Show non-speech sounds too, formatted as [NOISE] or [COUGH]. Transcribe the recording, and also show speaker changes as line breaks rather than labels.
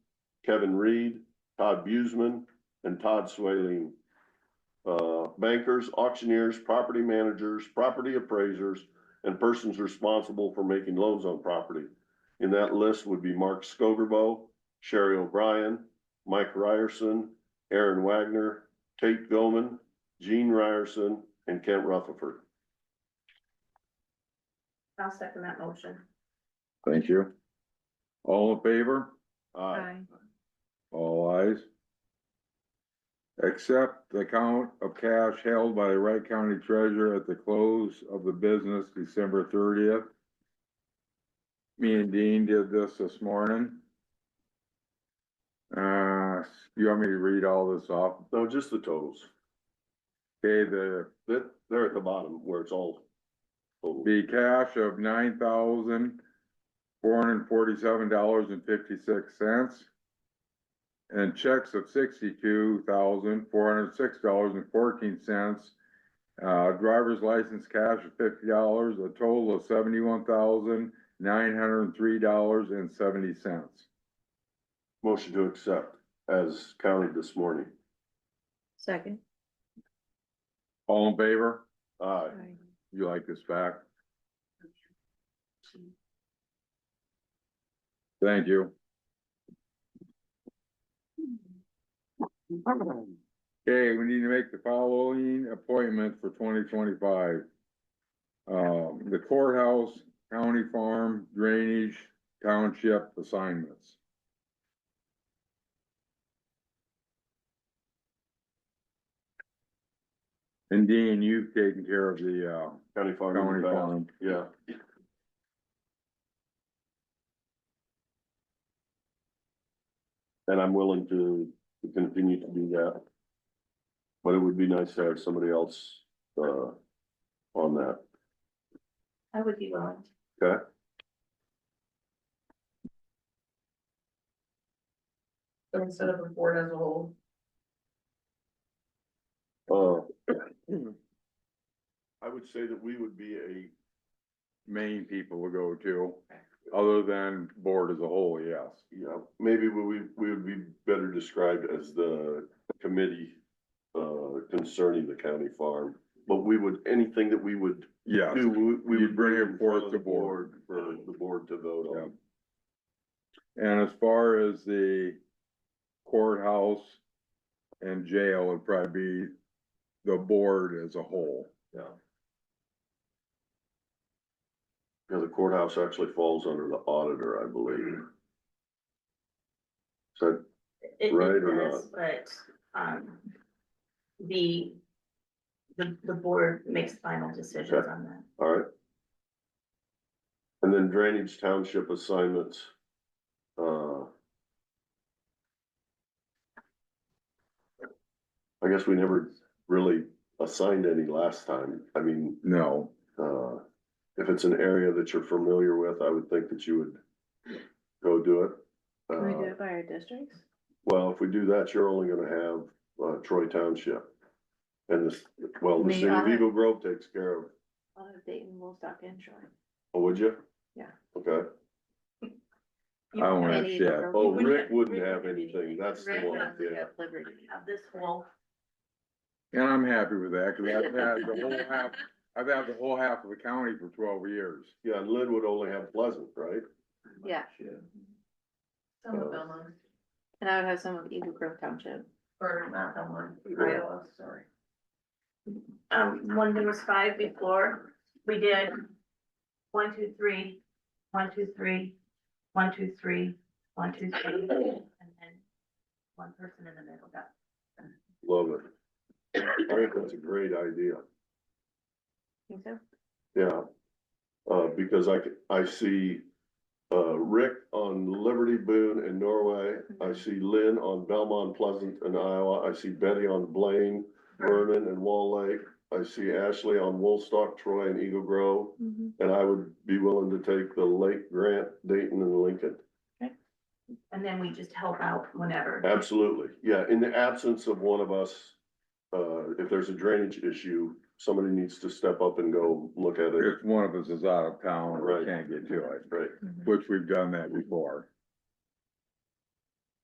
Kevin Reed, Todd Buseman, and Todd Swaleen. Uh, bankers, auctioneers, property managers, property appraisers, and persons responsible for making loans on property. In that list would be Mark Scogerbo, Sherry O'Brien, Mike Ryerson, Aaron Wagner, Tate Goman, Gene Ryerson, and Kent Rutherford.
I'll second that motion.
Thank you. All in favor?
Aye.
All eyes. Accept the account of cash held by the Wright County Treasurer at the close of the business December thirtieth. Me and Dean did this this morning. Uh, you want me to read all this off?
No, just the totals.
Okay, the
That, they're at the bottom where it's all. totaled.
The cash of nine thousand four hundred and forty-seven dollars and fifty-six cents. And checks of sixty-two thousand four hundred and six dollars and fourteen cents. Uh, driver's license cash of fifty dollars, a total of seventy-one thousand nine hundred and three dollars and seventy cents.
Motion to accept as counted this morning.
Second.
All in favor?
[CLEARS THROAT]
Aye.
You like this back? Thank you. Okay, we need to make the following appointment for twenty twenty-five. Um, the courthouse, county farm, drainage, township assignments. And Dean, you've taken care of the, uh,
County Farm.
county farm.
Yeah, and I'm willing to, to continue to do that. But it would be nice to have somebody else, uh, on that.
I would be willing.
Okay.
So instead of a board as a whole,
Uh, I would say that we would be a
Main people will go to, other than board as a whole, yes.
you know, maybe we, we we would be better described as the committee uh, concerning the county farm, but we would, anything that we would
Yes.
do, we- we would
You'd bring it
in front
forth
of
to
the
board.
For the board to vote on.
And as far as the courthouse and jail, it'd probably be the board as a whole.
Yeah. Yeah, the courthouse actually falls under the auditor, I believe. So
it- it
Right or
does, but, um, the, the, the board makes final decisions
Okay.
on that.
All right. And then drainage township assignments. uh, I guess we never really assigned any last time. I mean,
No,
uh, if it's an area that you're familiar with, I would think that you would go do it.
Can we do
Uh,
it by our districts?
Well, if we do that, you're only gonna have uh, Troy Township. And this, well, the
Me, uh,
city of
I-
Eagle Grove takes care of,
I'll have Dayton, Woolstock, and Troy.
oh, would you?
Yeah.
Okay.
I don't have
Any
shit.
other-
Oh,
we wouldn't
Rick
have-
wouldn't
Rick
have anything, that's the
Rick
one,
wouldn't
We
yeah.
have Liberty.
Now, this will,
and I'm happy with that, cause I've had the whole half, I've had the whole half of the county for twelve years.
Yeah, and Lynn would only have Pleasant, right?
Yeah,
some
Uh,
of them,
and I would have some of Eagle Grove Township.
or not that one,
Yeah.
Iowa, sorry. Um, one, there was five before, we did one, two, three, one, two, three, one, two, three, one, two, three, and then one person in the middle got
Love it. I think that's a great idea,
Think so?
yeah. Uh, because I, c- I see, uh, Rick on Liberty Boone in Norway.
Mm-hmm.
I see Lynn on Belmont Pleasant in Iowa. I see Betty on Blaine, Vernon and Wall Lake. I see Ashley on Woolstock, Troy and Eagle Grove. And I would be willing to take the Lake Grant, Dayton and Lincoln.
And then we just help out whenever.
Absolutely, yeah, in the absence of one of us, uh, if there's a drainage issue, somebody needs to step up and go look at it.
If one of us is out of town or
Right.
can't get to it,
Right,
which we've done that before.